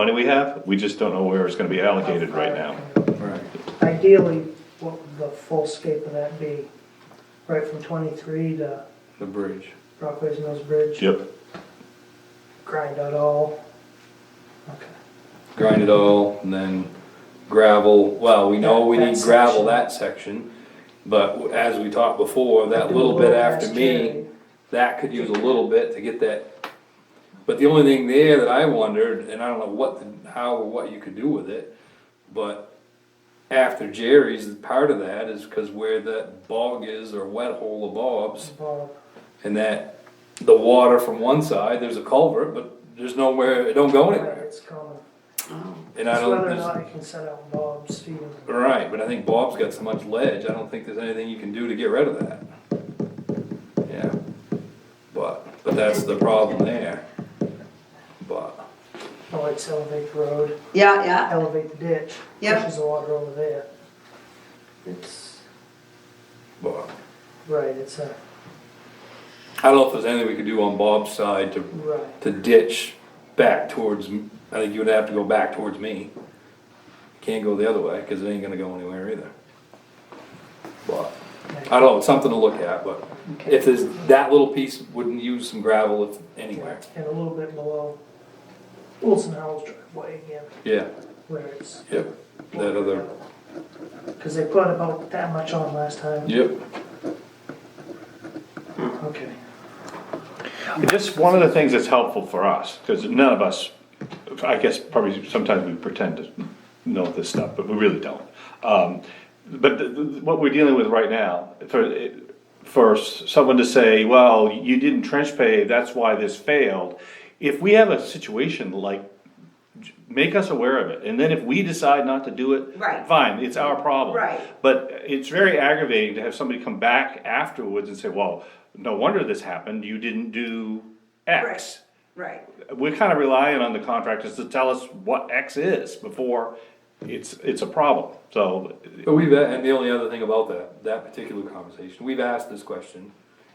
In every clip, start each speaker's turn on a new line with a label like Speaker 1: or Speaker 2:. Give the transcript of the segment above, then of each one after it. Speaker 1: money we have, we just don't know where it's gonna be allocated right now.
Speaker 2: Right.
Speaker 3: Ideally, what would the full scope of that be? Right from twenty-three to
Speaker 2: The bridge.
Speaker 3: Rockways Mills Bridge?
Speaker 1: Yep,
Speaker 3: Grind out all? Okay.
Speaker 2: Grind it all and then gravel, well, we know we
Speaker 3: That-
Speaker 2: need
Speaker 3: that
Speaker 2: gravel
Speaker 3: section.
Speaker 2: that section. But as we talked before, that
Speaker 3: Do a
Speaker 2: little bit
Speaker 3: little
Speaker 2: after
Speaker 3: less
Speaker 2: me,
Speaker 3: carry.
Speaker 2: that could use a little bit to get that. But the only thing there that I wondered, and I don't know what, the- how or what you could do with it, but after Jerry's, part of that is because where that bog is or wet hole of Bob's,
Speaker 3: Well,
Speaker 2: and that the water from one side, there's a culvert, but there's nowhere, it don't go anywhere.
Speaker 3: It's common.
Speaker 2: And I
Speaker 3: It's
Speaker 2: don't.
Speaker 3: whether or
Speaker 2: there's-
Speaker 3: not you can set out Bob's feet.
Speaker 2: Right, but I think Bob's got so much ledge, I don't think there's anything you can do to get rid of that. Yeah, but, but that's the problem there. But,
Speaker 3: Oh, it's elevate the road,
Speaker 4: Yeah, yeah,
Speaker 3: elevate the ditch.
Speaker 4: Yep.
Speaker 3: Pushes the water over there. It's,
Speaker 2: but,
Speaker 3: right, it's a,
Speaker 2: I don't know if there's anything we could do on Bob's side to,
Speaker 3: right.
Speaker 2: to ditch back towards, m- I think you would have to go back towards me. Can't go the other way, cause it ain't gonna go anywhere either. But, I don't know, it's something to look at, but if there's, that little piece wouldn't use some gravel if, anywhere,
Speaker 3: And a little bit below Wilson Howell's driveway again,
Speaker 2: yeah,
Speaker 3: where it's.
Speaker 2: yep, that other.
Speaker 3: Cause they put about that much on last time.
Speaker 2: Yep.
Speaker 3: Okay.
Speaker 1: Just one of the things that's helpful for us, because none of us, I guess probably sometimes we pretend to know this stuff, but we really don't. Um, But the- the- what we're dealing with right now, for, for someone to say, well, you didn't trench pave, that's why this failed. If we have a situation like, make us aware of it, and then if we decide not to do it.
Speaker 4: Right.
Speaker 1: Fine, it's our problem.
Speaker 4: Right.
Speaker 1: But it's very aggravating to have somebody come back afterwards and say, well, no wonder this happened, you didn't do X.
Speaker 4: right.
Speaker 1: We're kind of relying on the contractors to tell us what X is before it's, it's a problem, so.
Speaker 2: But we've, and the only other thing about that, that particular conversation, we've asked this question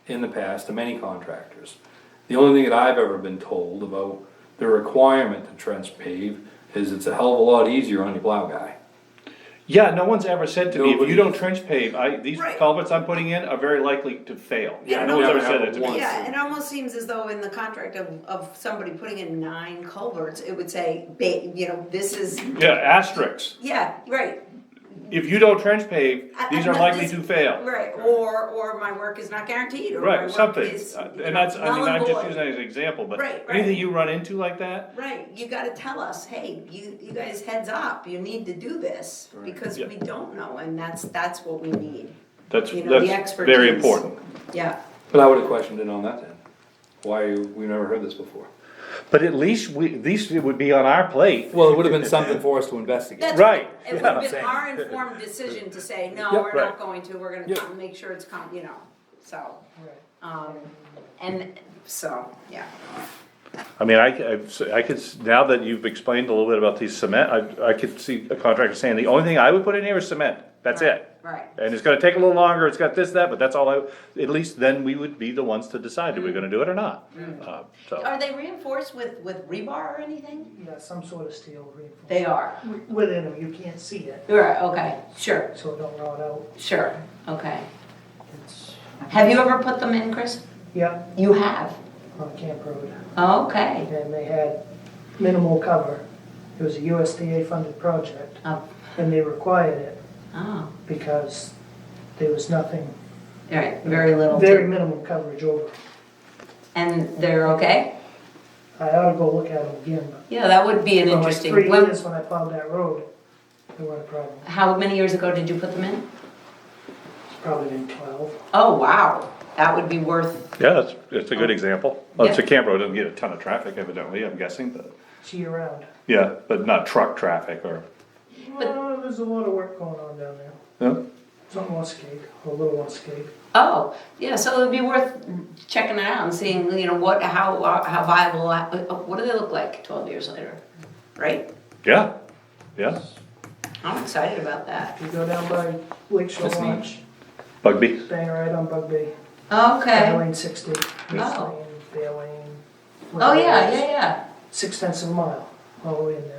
Speaker 2: in the past to many contractors. The only thing that I've ever been told about the requirement to trench pave is it's a hell of a lot easier on your plow guy.
Speaker 1: Yeah, no one's ever said to me, if you
Speaker 2: Nobody-
Speaker 1: don't trench pave, I, these
Speaker 4: Right.
Speaker 1: culverts I'm putting in are very likely to fail.
Speaker 4: Yeah,
Speaker 1: No one's
Speaker 2: never
Speaker 1: ever said
Speaker 2: happened
Speaker 1: that to me.
Speaker 2: once.
Speaker 4: Yeah, it almost seems as though in the contract of, of somebody putting in nine culverts, it would say, ba- you know, this is,
Speaker 1: Yeah, asterisks,
Speaker 4: yeah, right,
Speaker 1: if you don't trench pave,
Speaker 4: I-
Speaker 1: these
Speaker 4: I'm
Speaker 1: are
Speaker 4: not-
Speaker 1: likely
Speaker 4: this-
Speaker 1: to fail.
Speaker 4: right, or, or my work is not guaranteed, or my
Speaker 1: Right,
Speaker 4: work
Speaker 1: something,
Speaker 4: is.
Speaker 1: Uh,
Speaker 4: you
Speaker 1: and
Speaker 4: know,
Speaker 1: that's, I mean,
Speaker 4: null and
Speaker 1: I'm just
Speaker 4: void."
Speaker 1: using that as an example, but
Speaker 4: Right, right.
Speaker 1: anything you run into like that,
Speaker 4: Right, you gotta tell us, hey, you, you guys heads up, you need to do this, because
Speaker 1: Yeah.
Speaker 4: we don't know, and that's, that's what we need,
Speaker 1: That's,
Speaker 4: You know, the
Speaker 1: that's very
Speaker 4: expertise.
Speaker 1: important.
Speaker 4: yeah.
Speaker 2: But I would've questioned it on that then. Why, are you- we've never heard this before.
Speaker 1: But at least we, at least it would be on our plate.
Speaker 2: Well, it would've been something for us to investigate.
Speaker 4: That's-
Speaker 1: Right,
Speaker 4: It would have been our informed decision to say, no,
Speaker 2: Yep.
Speaker 4: we're not
Speaker 1: Right.
Speaker 4: going to, we're gonna
Speaker 2: Yep.
Speaker 4: come, make sure it's come, you know, so.
Speaker 3: Right.
Speaker 4: Um, and so, yeah,
Speaker 1: I mean, I, I've- I could, s- now that you've explained a little bit about these cement, I, I could see a contractor saying, the only thing I would put in here is cement, that's it.
Speaker 4: right,
Speaker 1: And it's gonna take a little longer, it's got this, that, but that's all I, at least then we would be the ones to decide, are
Speaker 4: Mm.
Speaker 1: we gonna do it or not? Uh, So,
Speaker 4: Are they reinforced with, with rebar or anything?
Speaker 3: Yeah, some sort of steel reinforcement.
Speaker 4: They are.
Speaker 3: Wi- Within them, you can't see it,
Speaker 4: Right, okay, sure,
Speaker 3: so it don't rot out.
Speaker 4: sure, okay.
Speaker 3: It's,
Speaker 4: Have you ever put them in, Chris?
Speaker 3: yeah,
Speaker 4: You have?
Speaker 3: on Camp Road.
Speaker 4: Okay.
Speaker 3: And they had minimal cover. It was a USDA funded project
Speaker 4: Oh,
Speaker 3: and they required it
Speaker 4: oh,
Speaker 3: because there was nothing,
Speaker 4: all right, very little. to-
Speaker 3: very minimal coverage over.
Speaker 4: And they're okay?
Speaker 3: I ought to go look at them again, but
Speaker 4: Yeah, that would be an
Speaker 3: for like
Speaker 4: interesting.
Speaker 3: three
Speaker 4: when-
Speaker 3: years when I plowed that road, there weren't a problem.
Speaker 4: How many years ago did you put them in?
Speaker 3: It's probably been twelve.
Speaker 4: Oh, wow, that would be worth,
Speaker 1: yeah, that's, that's a good example. Well, it's a
Speaker 4: Oh. Yeah.
Speaker 1: camp road, doesn't get a ton of traffic evidently, I'm guessing, but,
Speaker 3: It's year round.
Speaker 1: yeah, but not truck traffic or,
Speaker 3: Well, there's a lot of work going on down there.
Speaker 1: yeah.
Speaker 3: Something on skate, a little on skate.
Speaker 4: oh, yeah, so it'd be worth checking it out and seeing, you know, what, how, how viable, uh, what do they look like twelve years later? Right?
Speaker 1: Yeah, yeah,
Speaker 4: I'm excited about that.
Speaker 3: You go down by Lake Shore
Speaker 2: That's neat.
Speaker 3: Lodge,
Speaker 1: Bugby.
Speaker 3: bang right on Bugby,
Speaker 4: Okay.
Speaker 3: Fair Lane sixty, East
Speaker 4: Oh.
Speaker 3: Lane, Fair Lane.
Speaker 4: Oh, yeah, yeah, yeah.
Speaker 3: Six tenths of a mile, all the way in there.